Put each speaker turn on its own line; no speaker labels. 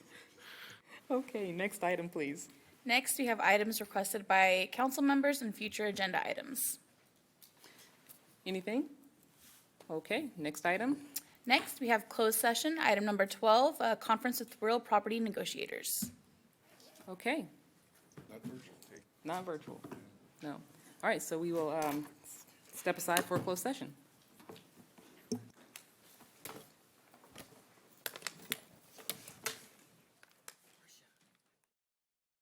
Okay, next item, please.
Next, we have items requested by council members and future agenda items.
Anything? Okay, next item.
Next, we have closed session, item number 12, a conference with real property negotiators.
Okay. Not virtual. No. All right, so we will um, s- step aside for a closed session.